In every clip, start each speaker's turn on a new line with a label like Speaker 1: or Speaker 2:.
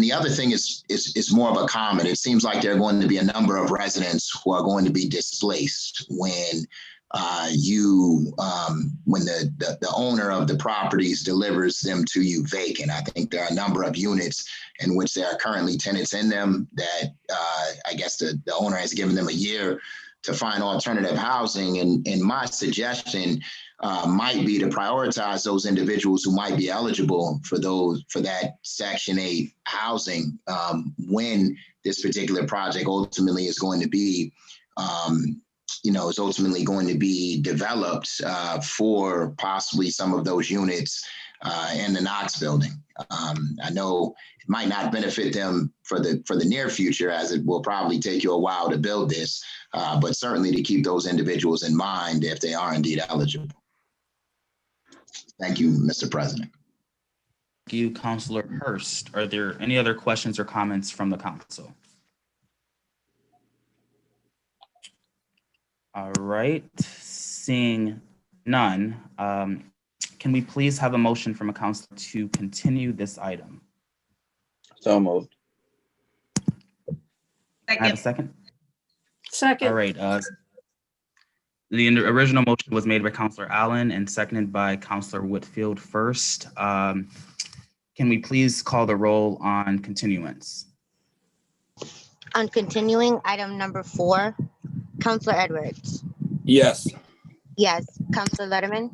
Speaker 1: The other thing is, is, is more of a comment. It seems like there are going to be a number of residents who are going to be displaced when uh, you, um, when the, the, the owner of the properties delivers them to you vacant. I think there are a number of units in which there are currently tenants in them that, uh, I guess the, the owner has given them a year to find alternative housing. And, and my suggestion, uh, might be to prioritize those individuals who might be eligible for those, for that Section 8 housing um, when this particular project ultimately is going to be, um, you know, is ultimately going to be developed uh, for possibly some of those units uh, in the Knox building. Um, I know it might not benefit them for the, for the near future, as it will probably take you a while to build this, uh, but certainly to keep those individuals in mind if they are indeed eligible. Thank you, Mr. President.
Speaker 2: Thank you, Counselor Hurst. Are there any other questions or comments from the council? All right, seeing none, um, can we please have a motion from a council to continue this item?
Speaker 3: So moved.
Speaker 2: Can I have a
Speaker 4: Second,
Speaker 2: second? All
Speaker 5: Second,
Speaker 2: right. uh, The in- original motion was made by Counselor Allen and seconded by Counselor Whitfield first. Um, Can we please call the roll on continuance?
Speaker 6: On continuing item number four, Counselor Edwards.
Speaker 3: Yes.
Speaker 6: Yes. Counselor Letterman.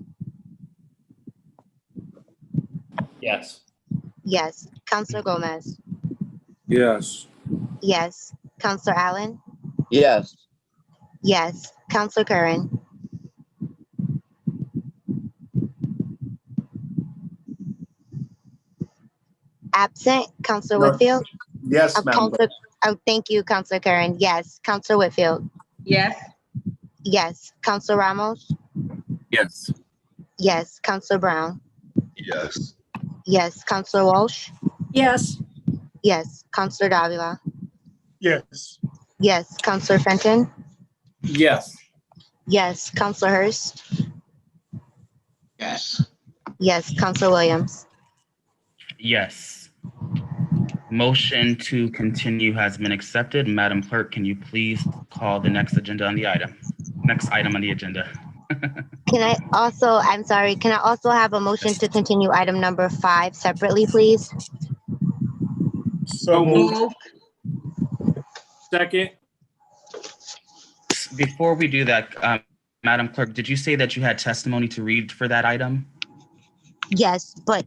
Speaker 7: Yes.
Speaker 6: Yes. Counselor Gomez.
Speaker 3: Yes.
Speaker 6: Yes. Counselor Allen.
Speaker 3: Yes.
Speaker 6: Yes. Counselor Curran. Absent. Counselor
Speaker 7: No.
Speaker 6: Whitfield.
Speaker 7: Yes,
Speaker 6: Uh,
Speaker 7: Madam Clerk.
Speaker 6: Counselor- Oh, thank you, Counselor Curran. Yes. Counselor Whitfield.
Speaker 4: yes,
Speaker 6: Yes. Counselor Ramos.
Speaker 3: Yes.
Speaker 6: Yes. Counselor Brown.
Speaker 8: Yes.
Speaker 6: Yes. Counselor Walsh.
Speaker 5: yes,
Speaker 6: Yes. Counselor Davila.
Speaker 7: Yes.
Speaker 6: Yes. Counselor Fenton.
Speaker 3: Yes.
Speaker 6: Yes, Counselor Hurst.
Speaker 1: Yes.
Speaker 6: Yes, Counselor Williams.
Speaker 2: Yes. Motion to continue has been accepted. Madam Clerk, can you please call the next agenda on the item? Next item on the agenda.
Speaker 6: Can I also, I'm sorry, can I also have a motion to continue item number five separately, please?
Speaker 7: So moved.
Speaker 4: move,
Speaker 7: Second.
Speaker 2: Before we do that, um, Madam Clerk, did you say that you had testimony to read for that item?
Speaker 6: Yes, but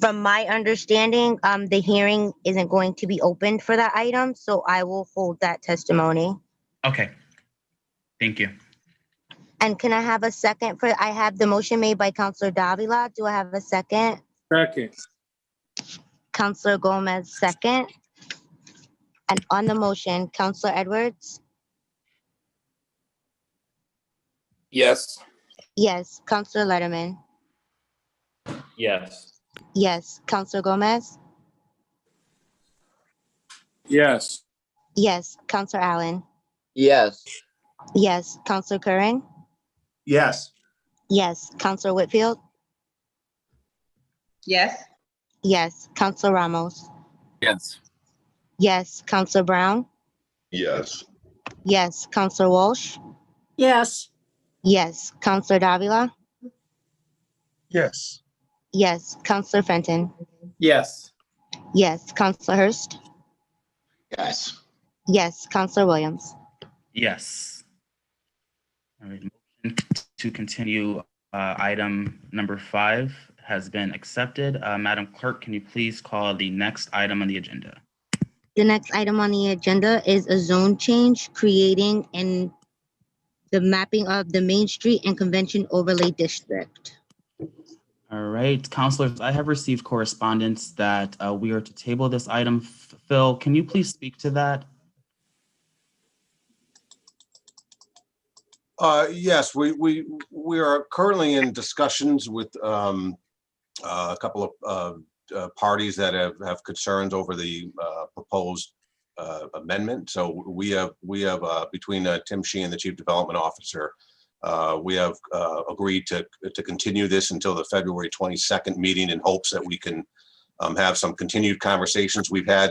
Speaker 6: from my understanding, um, the hearing isn't going to be opened for that item, so I will hold that testimony.
Speaker 2: Okay. Thank you.
Speaker 6: And can I have a second for, I have the motion made by Counselor Davila. Do I have a second?
Speaker 7: Second.
Speaker 6: Counselor Gomez, second. And on the motion, Counselor Edwards?
Speaker 3: Yes.
Speaker 6: Yes, Counselor Letterman?
Speaker 7: Yes.
Speaker 6: Yes, Counselor Gomez?
Speaker 7: Yes.
Speaker 6: Yes, Counselor Allen.
Speaker 3: Yes.
Speaker 6: Yes, Counselor Curran.
Speaker 7: Yes.
Speaker 6: Yes, Counselor Whitfield.
Speaker 4: yes,
Speaker 6: Yes, Counselor Ramos.
Speaker 3: Yes.
Speaker 6: Yes, Counselor Brown.
Speaker 8: Yes.
Speaker 6: Yes, Counselor Walsh.
Speaker 5: yes,
Speaker 6: Yes, Counselor Davila.
Speaker 7: Yes.
Speaker 6: Yes, Counselor Fenton.
Speaker 3: Yes.
Speaker 6: Yes, Counselor Hurst.
Speaker 1: Yes.
Speaker 6: Yes, Counselor Williams.
Speaker 2: Yes. All right, motion to continue, uh, item number five has been accepted. Uh, Madam Clerk, can you please call the next item on the agenda?
Speaker 6: The next item on the agenda is a zone change creating and the mapping of the Main Street and Convention Overlay District.
Speaker 2: All right, counselors, I have received correspondence that uh, we are to table this item. F- Phil, can you please speak to that?
Speaker 9: Uh, yes, we, we, we are currently in discussions with, um, uh, a couple of, uh, uh, parties that have, have concerns over the, uh, proposed, uh, amendment. So we have, we have, uh, between, uh, Tim Sheehan, the Chief Development Officer, uh, we have, uh, agreed to, to continue this until the February twenty-second meeting in hopes that we can, um, have some continued conversations. We've had